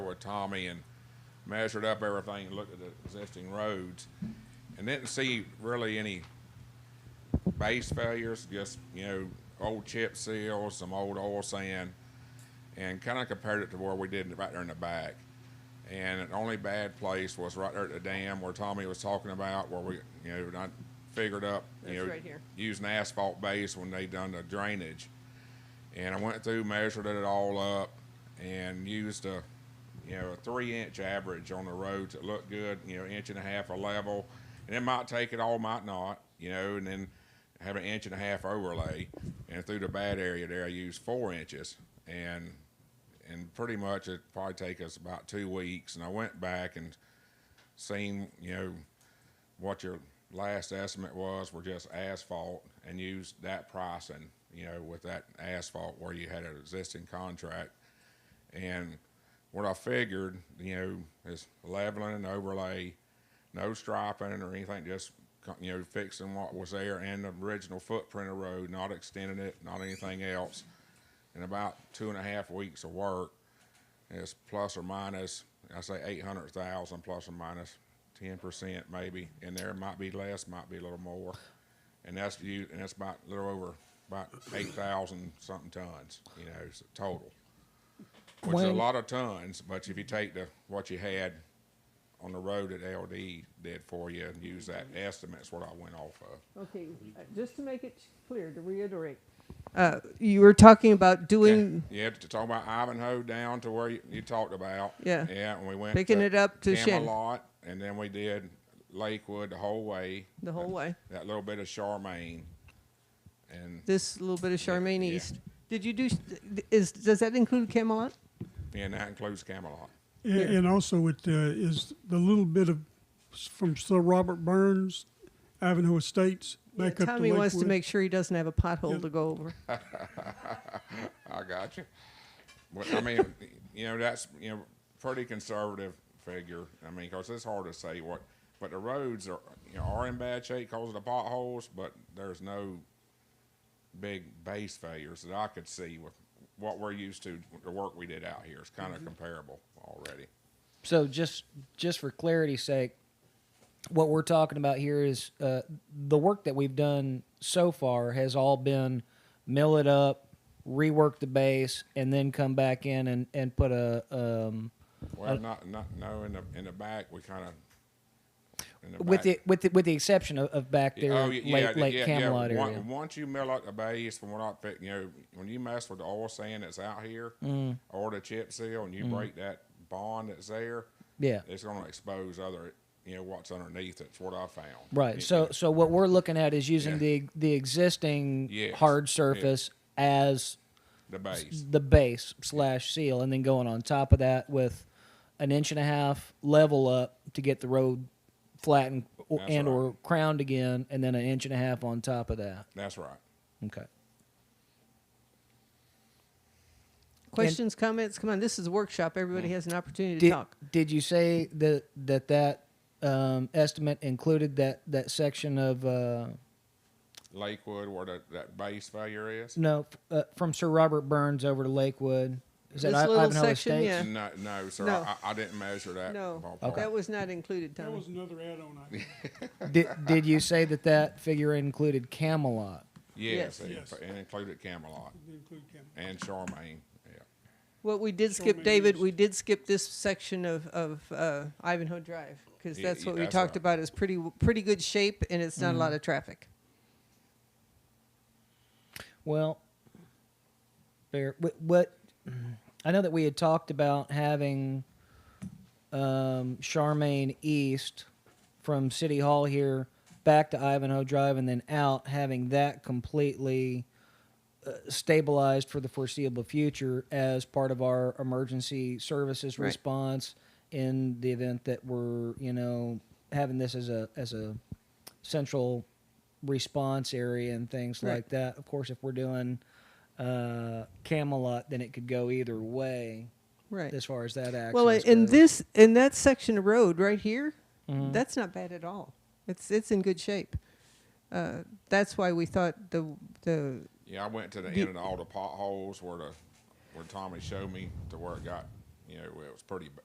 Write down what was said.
Tommy and measured up everything and looked at the existing roads and didn't see really any base failures, just, you know, old chip seals, some old oil sand, and kind of compared it to where we did it right there in the back. And the only bad place was right there at the dam where Tommy was talking about, where we, you know, not figured up, you That's know, right here. using asphalt base when they done the drainage. And I went through, measured it all up, and used a, you know, a three-inch average on the roads that looked good, you know, inch and a half a level. And it might take it all, might not, you know, and then have an inch and a half overlay. And through the bad area there, I used four inches. And, and pretty much it probably take us about two weeks. And I went back and seen, you know, what your last estimate was were just asphalt and used that pricing, you know, with that asphalt where you had an existing contract. And what I figured, you know, is leveling and overlay, no striping or anything, just, co- you know, fixing what was there and the original footprint of road, not extending it, not anything else. In about two and a half weeks of work, it's plus or minus, I say eight hundred thousand plus or minus ten percent maybe, and there might be less, might be a little more. And that's you, and that's about a little over, about eight thousand something tons, you know, s- total. Which is a Wayne? lot of tons, but if you take the, what you had on the road that LD did for you and use that estimate, that's what I went off of. Okay, uh, just to make it clear, to reiterate, uh, you were talking about doing, Yeah, to talk about Ivanhoe down to where you, you talked about. Yeah. Yeah, and we went Picking it up to Shin. Camelot, and then we did Lakewood the whole way. The whole way. That little bit of Charmaine, and this little bit of Charmaine yeah. East. Did you do, s- is, does that include Camelot? and that includes Camelot. And, and also, it uh, is the little bit of s- from Sir Robert Burns, Ivanhoe Estates, Yeah, back up to Tommy Lakewood. wants to make sure he doesn't have a pothole Yeah. to go over. I got you. But I mean, you know, that's you know, pretty conservative figure. I mean, 'cause it's hard to say what, but the roads are you know are in bad shape because of the potholes, but there's no big base failures that I could see with what we're used to. The work we did out here is kind of comparable already. So just just for clarity's sake, what we're talking about here is uh, the work that we've done so far has all been mill it up, rework the base, and then come back in and and put a. Um, Well, not not no in the in the back we kind of. with the with the, with the exception of, of back there, Oh, late yeah, yeah, late yeah, Camelot yeah. Once- area. Once you mill out the base, from what I think, you know, when you mess with the oil sand that's out here Mm. or the chip seal, and you break that bond that's there, Yeah. it's going to expose other, you know, what's underneath. It's what I found. Right. It- So it- so what we're looking at is using Yeah. the the existing Yes, hard yeah. surface as the base, the base slash seal, and then going on top of that with an inch and a half level up to get the road flattened or, That's and right. or crowned again, and then an inch and a half on top of that. that's right. Okay. Questions, comments? Come on, this is a workshop. Everybody Mm. has an opportunity to Did, talk. did you say that that that um, estimate included that that section of uh, Lakewood, where that, that base failure is. no f- uh, from Sir Robert Burns over to Lakewood? Is that This I- little Ivanhoe section, Estates? yeah. No, no, sir. No. I, I didn't measure that. No, ballpark. that was not included, That Tommy. was another add-on. I think. Did, did you say that that figure included Camelot? Yes, Yes. it- Yes. and included Camelot Didn't include Camelot. and Charmaine. Yeah. What we did Sure, skip, maybe David, it's- we did skip this section of, of uh, Ivanhoe Drive, because Yeah, that's yeah, what we that's talked right. Mm. about, is pretty, pretty good shape, and it's not a lot of traffic. Well, fair. What, what I know that we had talked about having um, Charmaine East from City Hall here back to Ivanhoe Drive and then out, having that completely uh, stabilized for the foreseeable future as part of our emergency services Right. response in the event that we're you know having this as a as a central response area and things Right. like that. Of course, if we're doing uh, Camelot, then it could go either way Right. as far as that access. Well, in goes. this, in that section of road right here, that's not bad at all. It's, it's in good shape. Uh, That's why we thought the, the, Yeah, I went to the Do- end of all the potholes where the where Tommy showed me to where it got. You know, it was pretty b-